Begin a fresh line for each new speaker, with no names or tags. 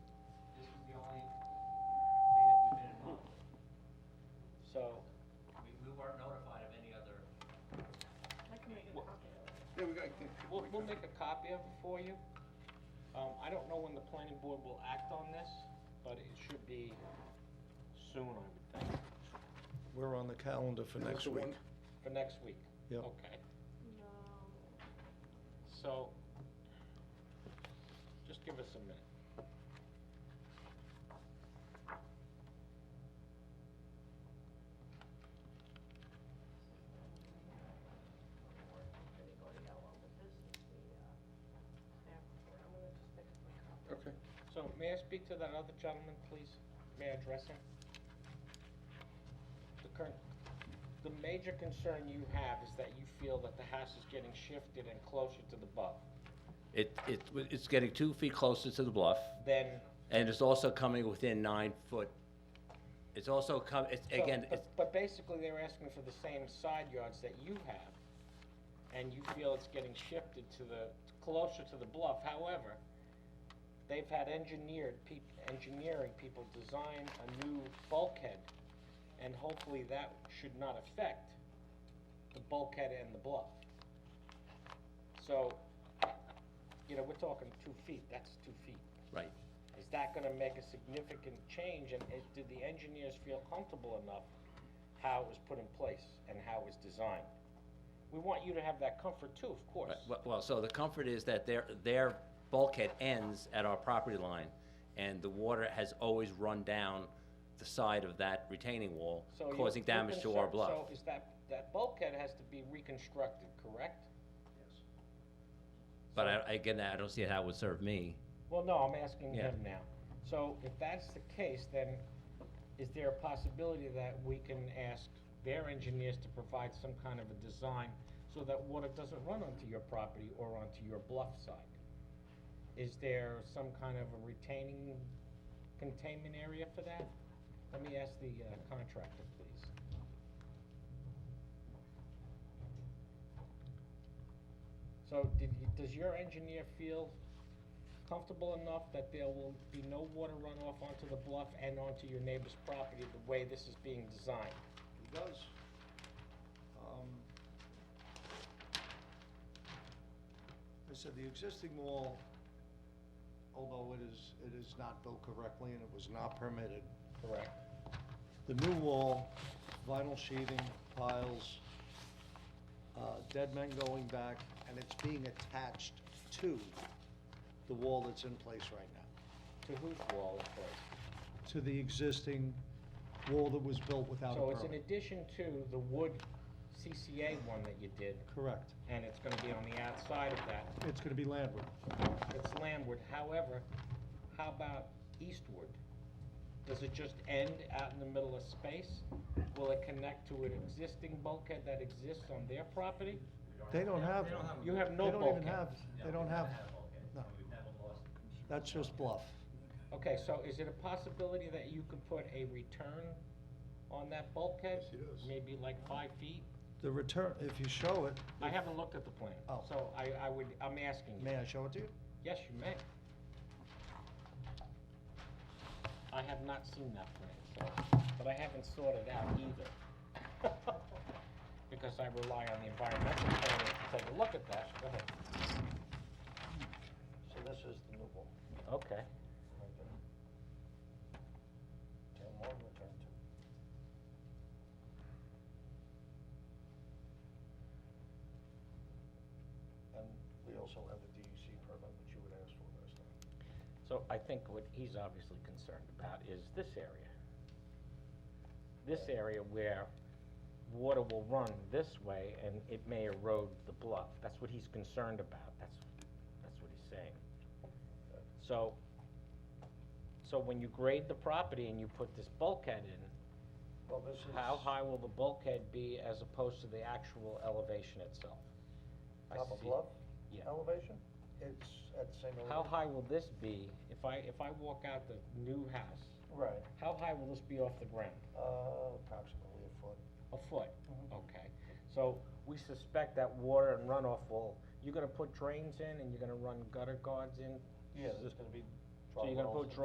we'll, we'll make a copy of it for you. Um, I don't know when the planning board will act on this, but it should be soon, I would think,
We're on the calendar for next
the
week.
one-
for next week.
Yep.
Okay, so, just give us a minute.
Okay.
So may I speak to that other gentleman, please? May I address him? The current, the major concern you have is that you feel that the house is getting shifted and closer to the above
It, it, it's getting two feet closer to the bluff,
Then,
and it's also coming within nine foot. It's also come, it's,
so,
again,
but-
it's,
but basically, they're asking for the same side yards that you have, and you feel it's getting shifted to the, closer to the bluff. However, they've had engineered peop, engineering people design a new bulkhead, and hopefully that should not affect the bulkhead and the bluff. So, you know, we're talking two feet, that's two feet.
right.
Is that gonna make a significant change, and is, did the engineers feel comfortable enough how it was put in place and how it was designed? We want you to have that comfort too, of course.
Right, well- Well, so the comfort is that their, their bulkhead ends at our property line, and the water has always run down the side of that retaining wall,
So you-
causing
you're
damage to our
concerned-
bluff.
So is that, that bulkhead has to be reconstructed, correct?
But I, again, I don't see how it would serve me.
Well, no, I'm asking
Yeah.
him now. So if that's the case, then is there a possibility that we can ask their engineers to provide some kind of a design so that water doesn't run onto your property or onto your bluff side? Is there some kind of a retaining containment area for that? Let me ask the uh, contractor, please. So did, you- does your engineer feel comfortable enough that there will be no water runoff onto the bluff and onto your neighbor's property the way this is being designed?
He does. Um, I said, the existing wall, although it is, it is not built correctly and it was not permitted,
Correct.
the new wall, vinyl sheathing, piles, uh, dead men going back, and it's being attached to the wall that's in place right now,
To whose wall, of course?
to the existing wall that was built without a
So
permit.
it's in addition to the wood CCA one that you did,
Correct.
and it's gonna be on the outside of that.
It's gonna be landward.
It's landward, however, how about eastward? Does it just end out in the middle of space? Will it connect to an existing bulkhead that exists on their property?
They don't have.
You have no
They don't even
bulkhead.
have, they don't have, no. That's just bluff.
Okay, so is it a possibility that you could put a return on that bulkhead?
Yes, it is.
Maybe like five feet?
The return, if you show it,
I haven't looked at the plan,
Oh.
so I, I would, I'm asking you.
may I show it to you?
Yes, you may. I have not seen that plan, so, but I haven't sorted out either. Because I rely on the environmental planner to take a look at that, go ahead.
So this is the new wall.
Okay.
right there. Town hall return to. And we also have the DEC permit, which you would ask for last time.
So I think what he's obviously concerned about is this area. This area where water will run this way and it may erode the bluff. That's what he's concerned about. That's, that's what he's saying. So, so when you grade the property and you put this bulkhead in,
Well, this is.
how high will the bulkhead be as opposed to the actual elevation itself? I
Top of
see-
bluff?
Yeah.
Elevation? It's at the same
How
elevation.
high will this be if I, if I walk out the new house?
Right,
How high will this be off the ground?
uh, approximately a foot.
A foot? Okay. So we suspect that water and runoff will, you're gonna put drains in and you're gonna run gutter guards in?
Yeah, there's gonna be.
So you're gonna
drywalls
put
and-
dr-